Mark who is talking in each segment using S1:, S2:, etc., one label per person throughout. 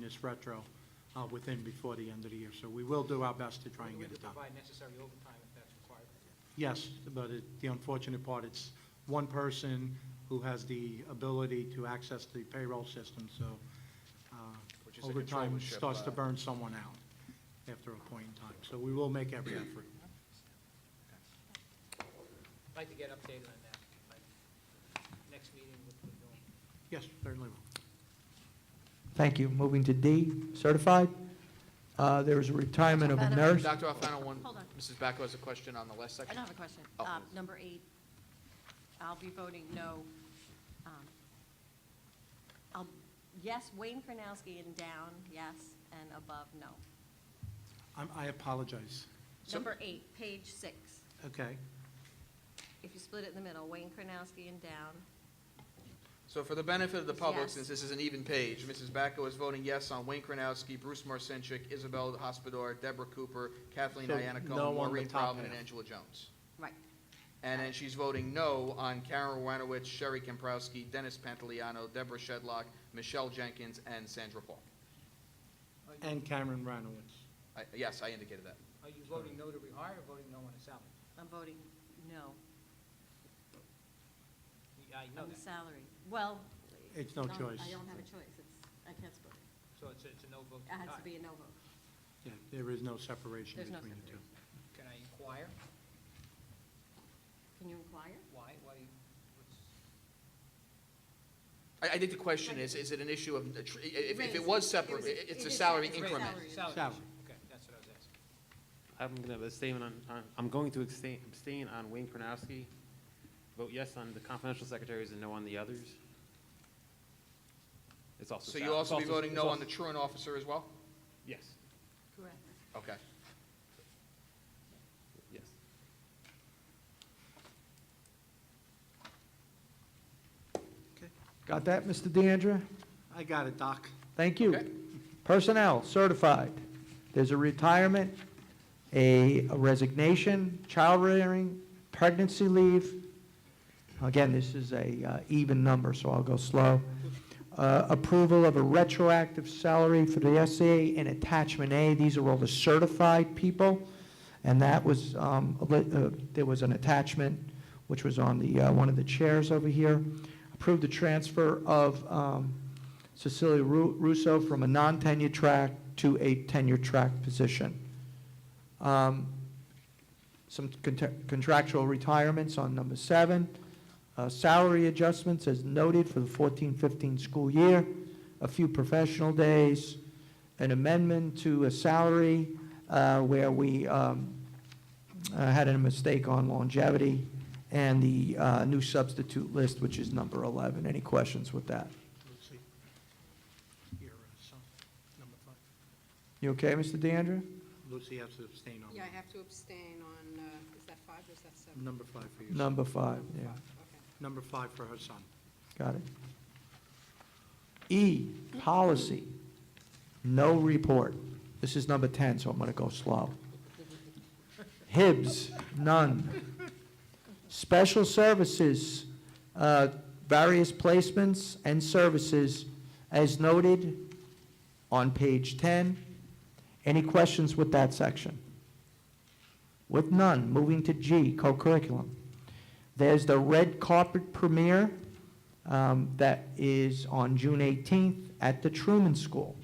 S1: this retro uh, within before the end of the year. So we will do our best to try and
S2: We
S1: get
S2: do
S1: it done.
S2: provide necessary overtime if that's required.
S1: Yes, but it- the unfortunate part, it's one person who has the ability to access the payroll system, so uh,
S3: Which is a
S1: overtime
S3: controllership,
S1: starts to
S3: uh,
S1: burn someone out after a point in time. So we will make every effort.
S2: I'd like to get updated on that, like, next meeting, what we're doing.
S1: Yes, certainly will.
S4: Thank you. Moving to D, certified. Uh, There was a retirement of a
S5: Better.
S4: nurse.
S3: Dr. Alfano, one,
S5: Hold on.
S3: Mrs. Bacco has a question on the last
S5: I
S3: section.
S5: don't have a question.
S3: Oh.
S5: Um, Number eight, I'll be voting no. Um, I'll- Yes, Wayne Kronowski and down, yes, and above, no.
S1: I'm- I apologize.
S3: So-
S5: Number eight, page six.
S1: Okay.
S5: If you split it in the middle, Wayne Kronowski and down,
S3: So for the benefit of the public,
S5: Yes.
S3: since this is an even page, Mrs. Bacco is voting yes on Wayne Kronowski, Bruce Marcinchik, Isabel Hospodar, Deborah Cooper, Kathleen
S1: So
S3: Ianna
S1: no on the
S3: Cohen, Maureen
S1: top
S3: Proudman, and
S1: half.
S3: Angela Jones.
S5: right.
S3: And then she's voting no on Karen Wanowitz, Sherry Kemprowski, Dennis Pantaleano, Deborah Shedlock, Michelle Jenkins, and Sandra Paul.
S1: And Cameron Ranowitz.
S3: I- Yes, I indicated that.
S2: Are you voting no to rehire or voting no on a salary?
S5: I'm voting no
S2: You- I know
S5: on the
S2: that,
S5: salary. Well.
S1: It's no
S5: I don't-
S1: choice.
S5: I don't have a choice. It's, I can't split it.
S2: so it's, it's a no vote.
S5: It has to
S2: Alright.
S5: be a no vote.
S1: Yeah, there is no separation
S5: There's no
S1: between the two.
S2: Can I inquire
S5: Can you inquire?
S2: why, why, you- what's,
S3: I, I think the question is, is it an issue of, if, if it
S5: Raise.
S3: was
S5: It
S3: separate,
S5: was-
S3: it's
S5: it
S3: a
S5: is
S3: salary
S5: separate.
S3: increment.
S5: Salary.
S2: salary?
S1: Salary.
S2: Okay, that's what I was asking.
S6: I'm going to have a statement on, on- I'm going to abstain, abstain on Wayne Kronowski, vote yes on the confidential secretaries and no on the others. It's also.
S3: So you'll
S6: sal- it's
S3: also be voting
S6: it's
S3: no on
S6: also-
S3: the truant officer as well?
S6: Yes,
S5: Correct.
S3: Okay.
S6: yes.
S4: Got that, Mr. DeAndrea?
S1: I got it, Doc.
S4: Thank you.
S3: Okay.
S4: Personnel, certified. There's a retirement, a a resignation, child rearing, pregnancy leave. Again, this is a uh, even number, so I'll go slow. Uh, Approval of a retroactive salary for the SCA and attachment A. These are all the certified people. And that was, um, a lit- uh, there was an attachment, which was on the, uh, one of the chairs over here. Approved the transfer of um, Cecilia Ru- Russo from a non-tenure track to a tenure track position. Um, Some cont- contractual retirements on number seven. Uh, Salary adjustments as noted for the 14-15 school year. A few professional days. An amendment to a salary uh, where we um, uh, had a mistake on longevity. And the uh, new substitute list, which is number 11. Any questions with that?
S1: Let's see. Your, uh, son, number five.
S4: You okay, Mr. DeAndrea?
S1: Lucy has to abstain on
S7: Yeah, I have to abstain on, uh, is that five or is that seven?
S1: number five for you.
S4: Number five, yeah,
S7: Okay.
S1: Number five for her son.
S4: got it. E, policy, no report. This is number 10, so I'm going to go slow. Hibbs, none. Special services, uh, various placements and services as noted on page 10. Any questions with that section? With none, moving to G, co-curriculum. There's the red carpet premiere um, that is on June 18th at the Truman School.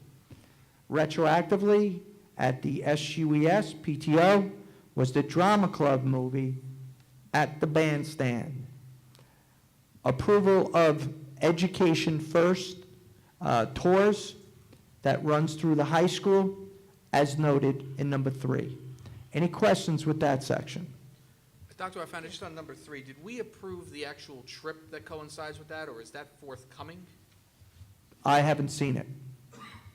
S4: Retroactively, at the E SUES PTO was the Drama Club movie at the bandstand. Approval of Education First uh, tours that runs through the high school, as noted in number three. Any questions with that section?
S3: Dr. Alfano, just on number three, did we approve the actual trip that coincides with that, or is that forthcoming?
S4: I haven't seen it,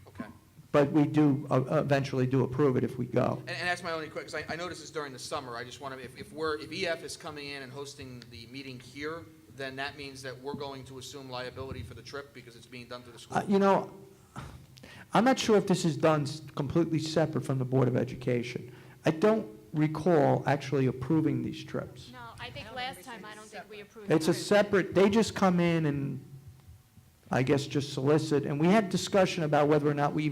S3: Okay.
S4: but we do uh, eventually do approve it if we go.
S3: And, and that's my only question, because I, I know this is during the summer, I just want to, if, if we're, if EF is coming in and hosting the meeting here, then that means that we're going to assume liability for the trip because it's being done through the
S4: Uh,
S3: school.
S4: You know, I'm not sure if this is done s- completely separate from the Board of Education. I don't recall actually approving these trips.
S8: No, I think last time, I don't think we approved.
S4: It's a
S8: it.
S4: separate, they just come in and, I guess, just solicit, and we had discussion about whether or not we